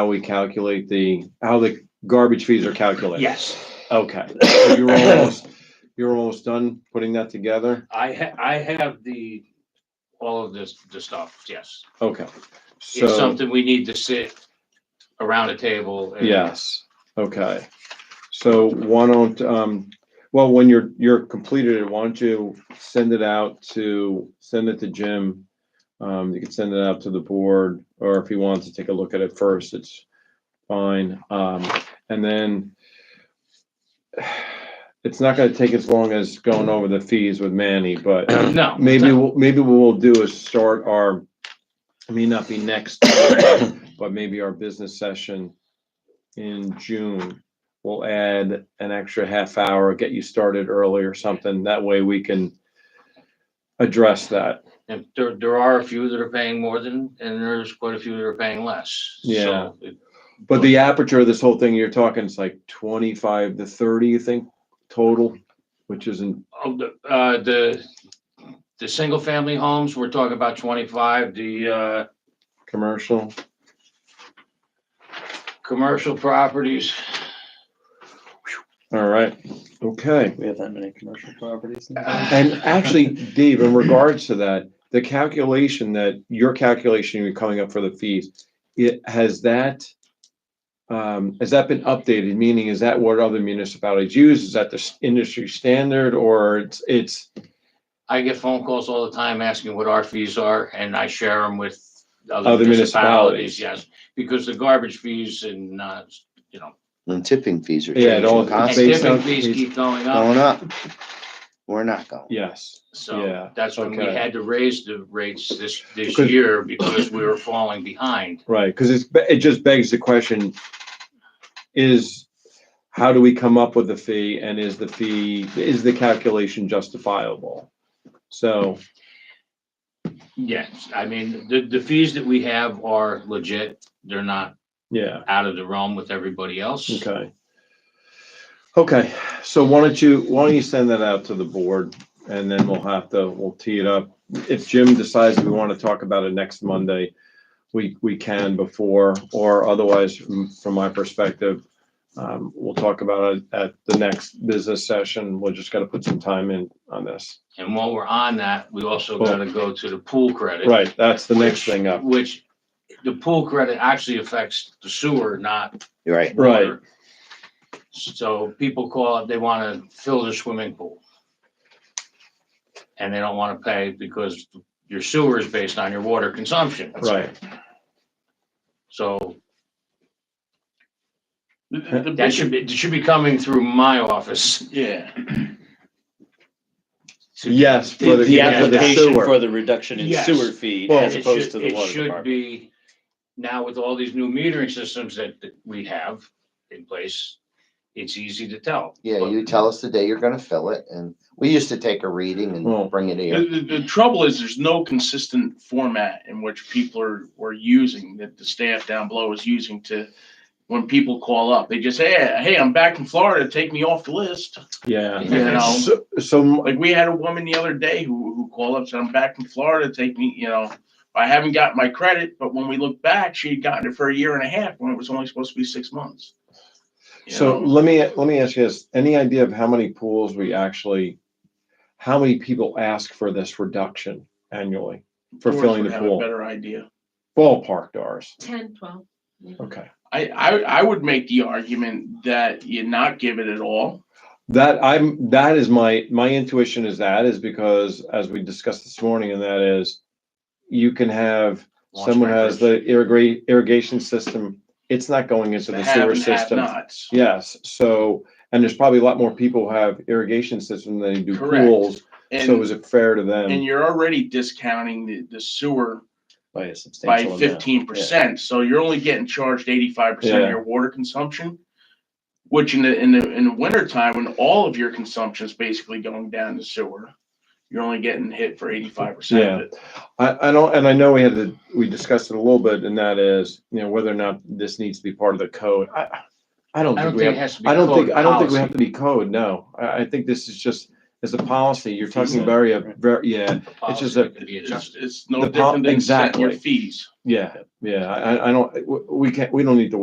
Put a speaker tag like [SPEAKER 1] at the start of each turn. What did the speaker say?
[SPEAKER 1] how we calculate the, how the garbage fees are calculated?
[SPEAKER 2] Yes,
[SPEAKER 1] Okay, so you're almost, you're almost done putting that together?
[SPEAKER 2] I ha- I have the, all of this, the stuff, yes.
[SPEAKER 1] Okay,
[SPEAKER 2] It's
[SPEAKER 1] so,
[SPEAKER 2] something we need to sit around a table. and-
[SPEAKER 1] yes, okay. So why don't, um, well, when you're, you're completed it, why don't you send it out to, send it to Jim? Um, you can send it out to the board, or if he wants to take a look at it first, it's fine. Um, and then it's not gonna take as long as going over the fees with Manny, but
[SPEAKER 2] No.
[SPEAKER 1] Maybe,
[SPEAKER 2] no.
[SPEAKER 1] we'll- maybe what we'll do is start our, it may not be next, time, but maybe our business session in June. We'll add an extra half hour, get you started early or something. That way we can address that.
[SPEAKER 2] And there, there are a few that are paying more than, and there's quite a few that are paying less. So
[SPEAKER 1] Yeah.
[SPEAKER 2] it-
[SPEAKER 1] But the aperture of this whole thing, you're talking, it's like twenty-five to thirty, you think, total, which isn't,
[SPEAKER 2] Oh, the, uh, the, the single family homes, we're talking about twenty-five, the, uh,
[SPEAKER 1] commercial?
[SPEAKER 2] commercial properties.
[SPEAKER 1] All right, okay.
[SPEAKER 3] We have that many commercial properties.
[SPEAKER 1] And actually, Dave, in regards to that, the calculation that your calculation you're coming up for the fees, it has that. Um, has that been updated? Meaning, is that what other municipalities use? Is that the s- industry standard or it's, it's,
[SPEAKER 2] I get phone calls all the time asking what our fees are and I share them with
[SPEAKER 1] Other
[SPEAKER 2] other
[SPEAKER 1] municipalities.
[SPEAKER 2] municipalities, yes. Because the garbage fees and, uh, you know,
[SPEAKER 4] And tipping fees are
[SPEAKER 1] Yeah, it
[SPEAKER 4] changing
[SPEAKER 1] all-
[SPEAKER 2] and
[SPEAKER 1] Based
[SPEAKER 4] constantly,
[SPEAKER 2] tipping
[SPEAKER 1] on-
[SPEAKER 2] fees keep going
[SPEAKER 4] going
[SPEAKER 2] up.
[SPEAKER 4] up. We're not going.
[SPEAKER 1] yes, yeah,
[SPEAKER 2] So that's when we
[SPEAKER 1] okay.
[SPEAKER 2] had to raise the rates this, this
[SPEAKER 1] Because-
[SPEAKER 2] year because we were falling behind.
[SPEAKER 1] right? Cause it's, it just begs the question is how do we come up with the fee and is the fee, is the calculation justifiable? So,
[SPEAKER 2] Yes, I mean, the, the fees that we have are legit. They're not
[SPEAKER 1] yeah.
[SPEAKER 2] out of the realm with everybody else.
[SPEAKER 1] Okay. Okay, so why don't you, why don't you send that out to the board and then we'll have to, we'll tee it up. If Jim decides we want to talk about it next Monday, we, we can before, or otherwise, from from my perspective, um, we'll talk about it at the next business session. We're just got to put some time in on this.
[SPEAKER 2] And while we're on that, we also gotta go to the pool credit.
[SPEAKER 1] Right, that's the next thing up.
[SPEAKER 2] Which, the pool credit actually affects the sewer, not.
[SPEAKER 4] You're right.
[SPEAKER 1] Right.
[SPEAKER 2] water. So people call, it they wanna fill their swimming pool. And they don't wanna pay because your sewer is based on your water consumption.
[SPEAKER 1] Right,
[SPEAKER 2] So
[SPEAKER 3] The- the
[SPEAKER 2] that
[SPEAKER 3] big-
[SPEAKER 2] should be, it should be coming through my office.
[SPEAKER 3] Yeah,
[SPEAKER 2] to-
[SPEAKER 1] yes. for
[SPEAKER 3] the,
[SPEAKER 2] the-
[SPEAKER 3] the
[SPEAKER 1] yeah, for the
[SPEAKER 3] application
[SPEAKER 1] sewer.
[SPEAKER 3] for the reduction in
[SPEAKER 2] Yes.
[SPEAKER 3] sewer fee
[SPEAKER 1] Well-
[SPEAKER 3] as
[SPEAKER 2] It
[SPEAKER 3] opposed
[SPEAKER 2] should-
[SPEAKER 3] to the
[SPEAKER 2] it
[SPEAKER 3] water
[SPEAKER 2] should
[SPEAKER 3] department.
[SPEAKER 2] be, now with all these new metering systems that that we have in place, it's easy to tell.
[SPEAKER 4] Yeah,
[SPEAKER 2] But
[SPEAKER 4] you tell us the day you're gonna fill it and we used to take a reading
[SPEAKER 1] Well,
[SPEAKER 4] and bring it
[SPEAKER 5] The,
[SPEAKER 4] here.
[SPEAKER 5] the, the trouble is there's no consistent format in which people are, were using that the staff down below is using to, when people call up, they just say, hey, hey, I'm back in Florida, take me off the list.
[SPEAKER 1] Yeah.
[SPEAKER 2] You know.
[SPEAKER 1] So- So,
[SPEAKER 5] Like we had a woman the other day who, who called up, said, I'm back in Florida, take me, you know, I haven't got my credit, but when we look back, she had gotten it for a year and a half when it was only supposed to be six months. You
[SPEAKER 1] So
[SPEAKER 5] know?
[SPEAKER 1] let me, let me ask you this, any idea of how many pools we actually, how many people ask for this reduction annually for
[SPEAKER 5] Doors
[SPEAKER 1] filling
[SPEAKER 5] would
[SPEAKER 1] the
[SPEAKER 5] have a
[SPEAKER 1] pool?
[SPEAKER 5] Better idea.
[SPEAKER 1] Ballpark dollars,
[SPEAKER 6] 10, 12. maybe.
[SPEAKER 5] Mm-hmm.
[SPEAKER 1] okay.
[SPEAKER 5] I, I, I would make the argument that you not give it at all.
[SPEAKER 1] That I'm, that is my, my intuition is that is because as we discussed this morning and that is you can have,
[SPEAKER 2] Launch
[SPEAKER 1] someone has
[SPEAKER 2] bankers.
[SPEAKER 1] the irrigate, irrigation system, it's not going into the
[SPEAKER 5] have
[SPEAKER 1] sewer
[SPEAKER 5] and have
[SPEAKER 1] system.
[SPEAKER 5] nots.
[SPEAKER 1] Yes, so, and there's probably a lot more people who have irrigation system than they do
[SPEAKER 5] Correct.
[SPEAKER 1] pools, so is
[SPEAKER 5] And,
[SPEAKER 1] it fair to them?
[SPEAKER 5] and you're already discounting the, the sewer
[SPEAKER 3] By a
[SPEAKER 5] by
[SPEAKER 3] substantial amount.
[SPEAKER 5] fifteen percent, so you're only getting charged eighty-five percent
[SPEAKER 1] Yeah.
[SPEAKER 5] of your water consumption. Which in the, in the, in the winter time, when all of your consumption is basically going down the sewer, you're only getting hit for eighty-five percent of it.
[SPEAKER 1] I, I don't, and I know we had to, we discussed it a little bit, and that is, you know, whether or not this needs to be part of the code. I, I don't
[SPEAKER 2] I
[SPEAKER 1] think we
[SPEAKER 2] don't think it
[SPEAKER 1] have,
[SPEAKER 2] has to be.
[SPEAKER 1] I don't
[SPEAKER 2] code
[SPEAKER 1] think, I don't think we
[SPEAKER 2] policy.
[SPEAKER 1] have to be code, no. I, I think this is just, is a policy. You're talking
[SPEAKER 3] Consent,
[SPEAKER 1] very, a
[SPEAKER 3] right.
[SPEAKER 1] very, yeah,
[SPEAKER 2] The
[SPEAKER 1] It's just
[SPEAKER 2] policy
[SPEAKER 1] that-
[SPEAKER 2] can be
[SPEAKER 5] It's,
[SPEAKER 2] adjusted.
[SPEAKER 5] it's no
[SPEAKER 1] The pol-
[SPEAKER 5] different than setting your
[SPEAKER 1] exactly.
[SPEAKER 5] fees.
[SPEAKER 1] yeah, yeah. I, I- I don't, we- we can't, we don't need to